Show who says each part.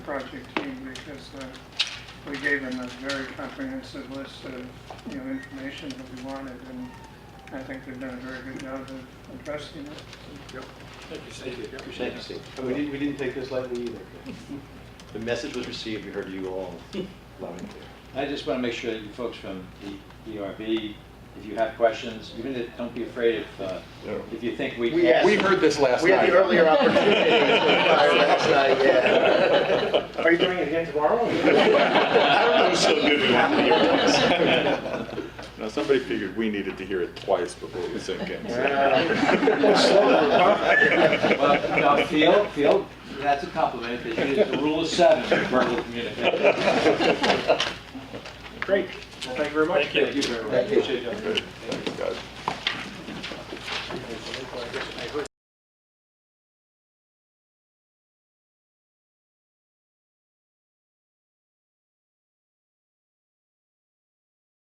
Speaker 1: project team because uh, we gave them a very comprehensive list of, you know, information that we wanted, and I think they've done a very good job of addressing it.
Speaker 2: Thank you, Steve.
Speaker 3: Thank you, Steve. And we didn't, we didn't take this lightly either. The message was received, we heard you all loud and clear.
Speaker 4: I just want to make sure that you folks from the ERB, if you have questions, even if, don't be afraid if, uh, if you think we.
Speaker 3: We asked-
Speaker 5: We heard this last night.
Speaker 3: We had the earlier opportunity to fire last night, yeah.
Speaker 2: Are you doing it again tomorrow?
Speaker 5: I don't know who's so good we want to hear it once. Now, somebody figured we needed to hear it twice before we sink in. so.
Speaker 4: Well, no, Phil, Phil, that's a compliment, because you used the rule of seven in verbal communication.
Speaker 2: Great. Well, thank you very much.
Speaker 4: Thank you very much.
Speaker 3: Thank you.
Speaker 4: Appreciate it.